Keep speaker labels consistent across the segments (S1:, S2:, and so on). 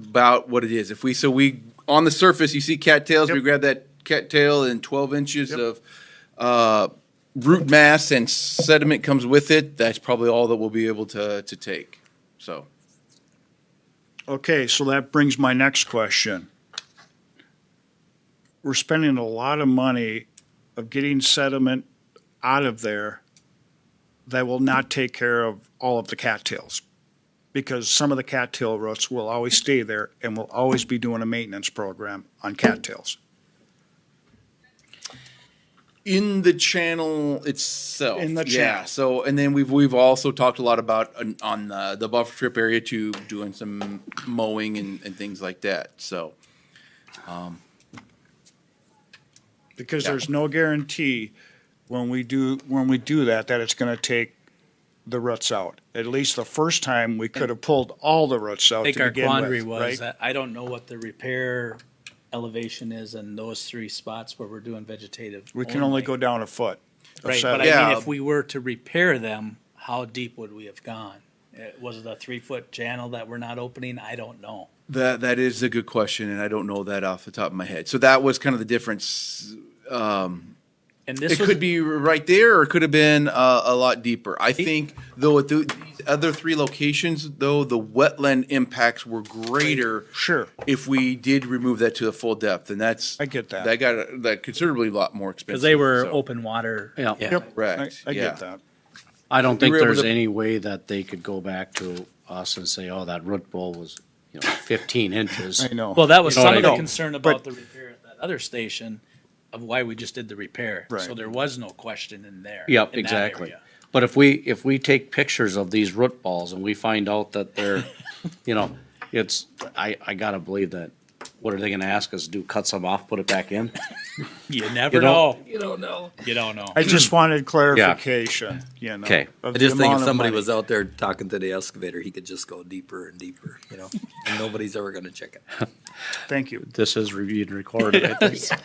S1: about what it is. If we so we on the surface, you see cattails. We
S2: Yep.
S1: grab that cattail and twelve inches
S2: Yep.
S1: of uh, root mass and sediment comes with it. That's probably all that we'll be able to to take. So
S2: Okay, so that brings my next question. We're spending a lot of money of getting sediment out of there that will not take care of all of the cattails. Because some of the cattail roots will always stay there and we'll always be doing a maintenance program on cattails.
S1: in the channel itself,
S2: In the
S1: yeah.
S2: channel.
S1: So and then we've we've also talked a lot about on, on the, the buffer strip area too, doing some mowing and, and things like that. So
S2: Because there's no guarantee when we do, when we do that, that it's gonna take the roots out. At least the first time, we could have pulled all the roots out
S3: I
S2: to
S3: think our
S2: begin
S3: quandary
S2: with,
S3: was
S2: right?
S3: that I don't know what the repair elevation is in those three spots where we're doing vegetative.
S2: We can only go down a foot. of
S3: Right, but
S2: sediment.
S3: I
S1: Yeah.
S3: mean, if we were to repair them, how deep would we have gone? Uh, Was it a three-foot channel that we're not opening? I don't know.
S1: That that is a good question, and I don't know that off the top of my head. So that was kind of the difference. um,
S3: And this
S1: it
S3: was,
S1: could be right there, or it could have been uh, a lot deeper. I think though at the, these other three locations, though the wetland impacts were greater.
S2: Sure.
S1: If we did remove that to the full depth, and that's
S2: I get that.
S1: that got that considerably a lot more expensive
S3: because they were
S1: so.
S3: open water.
S4: Yeah.
S2: Yep, I,
S1: Correct,
S2: I
S1: yeah.
S2: get that.
S4: I don't
S1: They
S4: think
S1: were able
S4: there's
S1: to-
S4: any way that they could go back to us and say, oh, that root ball was, you know, fifteen inches.
S2: I know.
S3: Well, that was
S4: You know
S3: some
S4: what
S3: of
S4: I
S3: the
S4: mean?
S3: concern about the repair at that other station of why we just did the repair.
S2: Right.
S3: So there was no question in there.
S4: Yep,
S3: in that
S4: exactly.
S3: area.
S4: But if we, if we take pictures of these root balls and we find out that they're, you know, it's, I, I gotta believe that, what are they gonna ask us to do, cut some off, put it back in?
S3: You never know.
S4: don't- You don't know.
S3: You don't know.
S2: I just wanted clarification, you know.
S4: Okay.
S2: of
S5: I
S2: the
S5: just think
S2: amount
S5: if
S2: of
S5: somebody
S2: money.
S5: was out there talking to the excavator, he could just go deeper and deeper, you know, and nobody's ever going to check it.
S2: Thank you.
S4: This is reviewed and recorded, I think.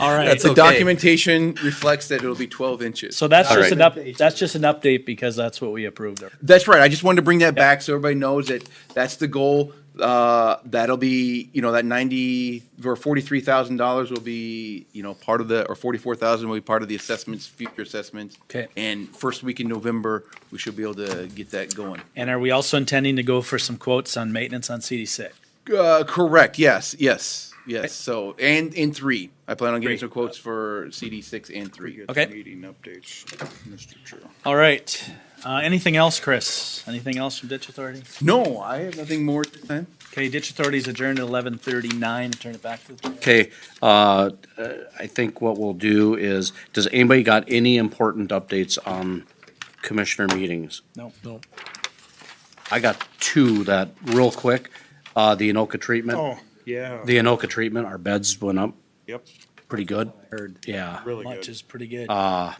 S3: All right.
S5: That's
S1: The
S5: okay.
S1: documentation reflects that it'll be twelve inches.
S3: So that's
S4: All
S3: just
S4: right.
S3: an up, that's just an update because that's what we approved.
S1: That's right. I just wanted to bring that back so everybody knows that that's the goal. Uh, that'll be, you know, that ninety or forty-three thousand dollars will be, you know, part of the, or forty-four thousand will be part of the assessments, future assessments.
S3: Okay.
S1: And first week in November, we should be able to get that going.
S3: And are we also intending to go for some quotes on maintenance on CD six?
S1: Uh, correct. Yes, yes, yes. So, and in three, I plan on getting
S3: Three.
S1: some quotes for CD six and three.
S2: Get the
S3: Okay.
S2: Meeting updates, Mr. Chair.
S3: All right. Uh, anything else, Chris? Anything else from Ditch Authority?
S1: No, I have nothing more at this time.
S3: Okay, Ditch Authority is adjourned at eleven thirty-nine. Turn it back to the.
S4: Okay, uh, I think what we'll do is, does anybody got any important updates on commissioner meetings?
S3: No. No.
S4: I got two that, real quick, uh, the Anoka treatment,
S2: Oh, yeah,
S4: the Anoka treatment, our beds went up
S2: yep,
S4: pretty good,
S5: Heard.
S4: yeah.
S2: really
S3: Much
S2: good. Uh,
S3: is pretty good.
S4: I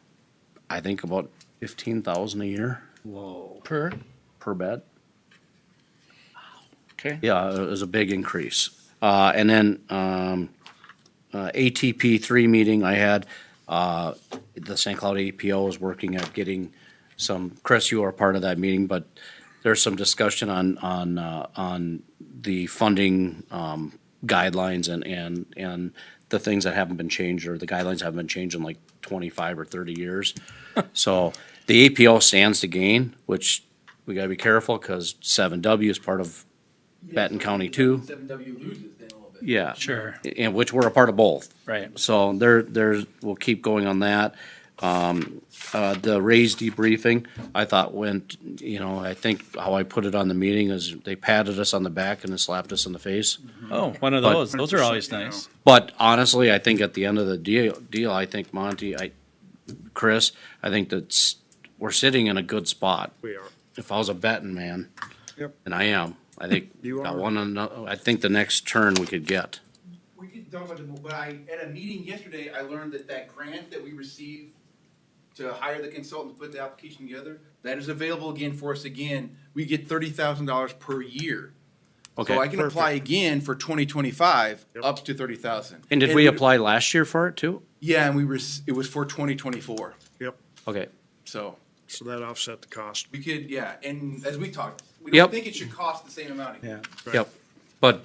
S4: think about fifteen thousand a year
S3: Per?
S4: per bed.
S3: Okay.
S4: Yeah, it was a big increase. Uh, and then, um, uh, ATP three meeting I had, uh, the St. Cloud APO is working at getting some, Chris, you are part of that meeting, but there's some discussion on, on, uh, on the funding, um, guidelines and, and, and the things that haven't been changed or the guidelines haven't been changed in like twenty-five or thirty years. So the APO stands to gain, which we gotta be careful because seven W is part of Benton County too.
S1: Seven W loses then a little bit.
S4: Yeah.
S3: Sure.
S4: And which we're a part of both.
S3: Right.
S4: So there, there's, we'll keep going on that. Um, uh, the raised debriefing, I thought went, you know, I think how I put it on the meeting is they patted us on the back and then slapped us in the face.
S3: Oh, one of those. Those are always nice.
S4: But honestly, I think at the end of the deal, deal, I think Monty, I, Chris, I think that's, we're sitting in a good spot.
S2: We are.
S4: If I was a betting man,
S2: Yep.
S4: and I am, I think,
S2: You
S4: got
S2: are.
S4: one, ano- I think the next turn we could get.
S1: We can talk about the, but I, at a meeting yesterday, I learned that that grant that we received to hire the consultant to put the application together, that is available again for us again. We get thirty thousand dollars per year.
S4: Okay.
S1: So I can apply again for twenty twenty-five, up to thirty thousand.
S4: And did we apply last year for it too?
S1: Yeah, and we were, it was for twenty twenty-four,
S2: Yep,
S4: Okay,
S1: so
S2: so that offset the cost.
S1: we could, yeah, and as we talked, we
S4: Yep.
S1: don't think it should cost the same amount. again.
S4: yep. But